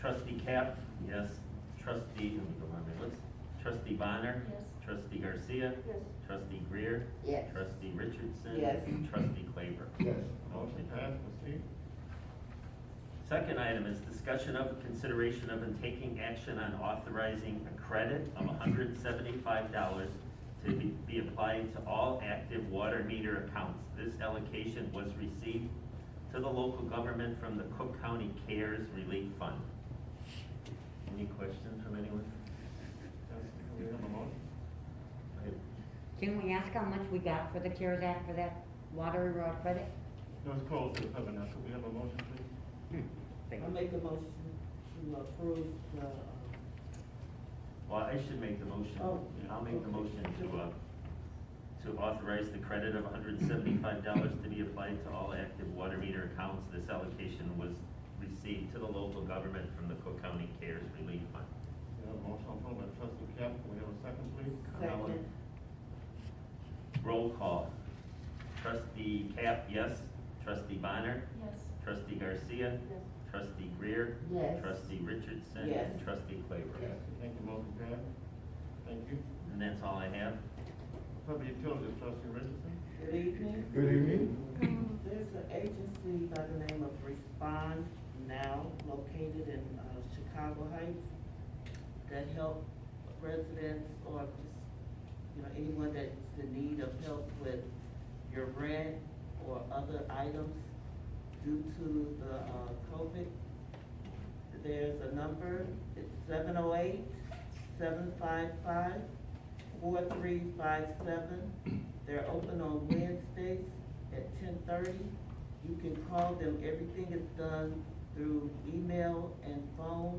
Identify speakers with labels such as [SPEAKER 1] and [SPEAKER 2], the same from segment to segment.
[SPEAKER 1] Cap, yes. Trustee, let me go down my list. Trustee Bonner.
[SPEAKER 2] Yes.
[SPEAKER 1] Trustee Garcia.
[SPEAKER 2] Yes.
[SPEAKER 1] Trustee Greer.
[SPEAKER 3] Yes.
[SPEAKER 1] Trustee Richardson.
[SPEAKER 3] Yes.
[SPEAKER 1] Trustee Claver.
[SPEAKER 4] Yes.
[SPEAKER 1] Motion passed, proceed. Second item is discussion of consideration of and taking action on authorizing a credit of hundred seventy-five dollars to be- be applied to all active water meter accounts. This allocation was received to the local government from the Cook County CARES Relief Fund. Any questions from anyone? We have a motion?
[SPEAKER 5] Can we ask how much we got for the CARES Act for that water uh, credit?
[SPEAKER 1] It was closed to the public, now could we have a motion, please?
[SPEAKER 5] Hmm,
[SPEAKER 3] I
[SPEAKER 5] thank you.
[SPEAKER 3] make a motion to approve the, um,
[SPEAKER 1] Well, I should make the motion,
[SPEAKER 3] Oh.
[SPEAKER 1] I'll make the motion to, uh, to authorize the credit of hundred and seventy-five dollars to be applied to all active water meter accounts. This allocation was received to the local government from the Cook County CARES Relief Fund.
[SPEAKER 4] We have a motion on the floor by trustee Cap, can we have a second, please?
[SPEAKER 3] second.
[SPEAKER 1] Roll call. Trustee Cap, yes. Trustee Bonner.
[SPEAKER 2] Yes.
[SPEAKER 1] Trustee Garcia.
[SPEAKER 2] Yes.
[SPEAKER 1] Trustee Greer.
[SPEAKER 3] Yes.
[SPEAKER 1] Trustee Richardson.
[SPEAKER 3] Yes.
[SPEAKER 1] And trustee Claybrook.
[SPEAKER 4] Thank you, motion passed. Thank you.
[SPEAKER 1] And that's all I have.
[SPEAKER 4] Public utilities, trustee Richardson.
[SPEAKER 3] Good evening.
[SPEAKER 4] Good evening.
[SPEAKER 3] There's an agency by the name of Respond Now located in uh, Chicago Heights that help residents or just, you know, anyone that's in need of help with your rent or other items due to the uh, COVID. There's a number, it's seven oh eight, seven five five, four three five seven. They're open on Wednesdays at ten thirty. You can call them, everything is done through email and phone,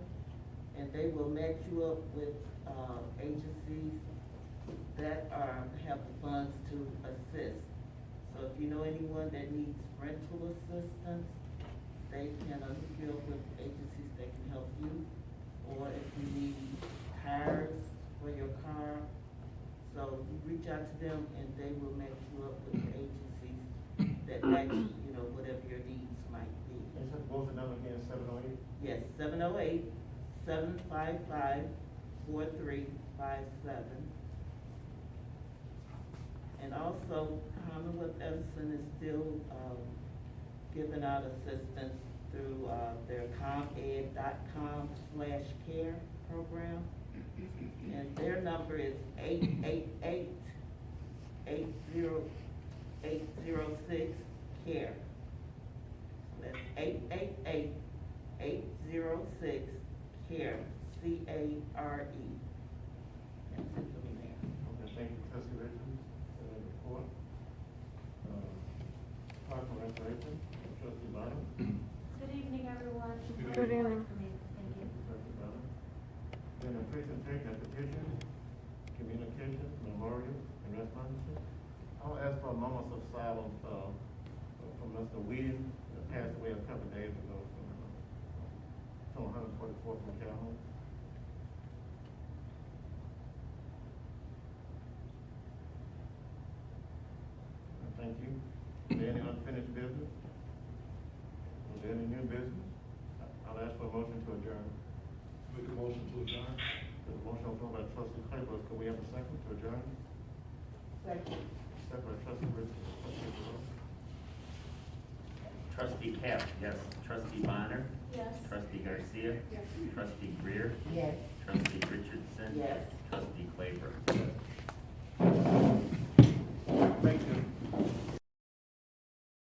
[SPEAKER 3] and they will match you up with, uh, agencies that are, have the funds to assist. So if you know anyone that needs rental assistance, they can, uh, hook you up with agencies that can help you. Or if you need tires for your car, so you reach out to them and they will match you up with agencies that match, you know, whatever your needs might be.
[SPEAKER 4] And so both the number again, seven oh eight.
[SPEAKER 3] Yes, seven oh eight, seven five five, four three five seven. And also Commonwealth Edison is still, um, giving out assistance through, uh, their ComEd dot com slash care program. And their number is eight eight eight, eight zero, eight zero six, care. That's eight eight eight, eight zero six, CARE, C-A-R-E. E. That's it for me, Mayor.
[SPEAKER 4] Okay, thank you, trustee Richardson, for that report. Uh, Park and Recreation, trustee Bonner.
[SPEAKER 2] Good evening, everyone.
[SPEAKER 4] Good evening.
[SPEAKER 2] Thank you.
[SPEAKER 4] Trustee Bonner. Then a presentation of petitions, communications, memorials, and responses. I'll ask for a moment of silence, uh, for Mr. Williams, who passed away a couple of days ago from, uh, from one hundred forty-fourth and Calhoun. Uh, Thank you. Is there any unfinished business? Is there any new business? I- I'll ask for a motion to adjourn.
[SPEAKER 6] Make a motion to adjourn.
[SPEAKER 4] There's a motion on the floor by trustee Claybrook, can we have a second to adjourn?
[SPEAKER 3] Second.
[SPEAKER 4] Second by trustee Richardson, trustee Jerome.
[SPEAKER 1] Trustee Cap, yes. Trustee Bonner.
[SPEAKER 2] Yes.
[SPEAKER 1] Trustee Garcia.
[SPEAKER 2] Yes.
[SPEAKER 1] Trustee Greer.
[SPEAKER 3] Yes.
[SPEAKER 1] Trustee Richardson.
[SPEAKER 3] Yes.
[SPEAKER 1] Trustee Claybrook.
[SPEAKER 4] Yes.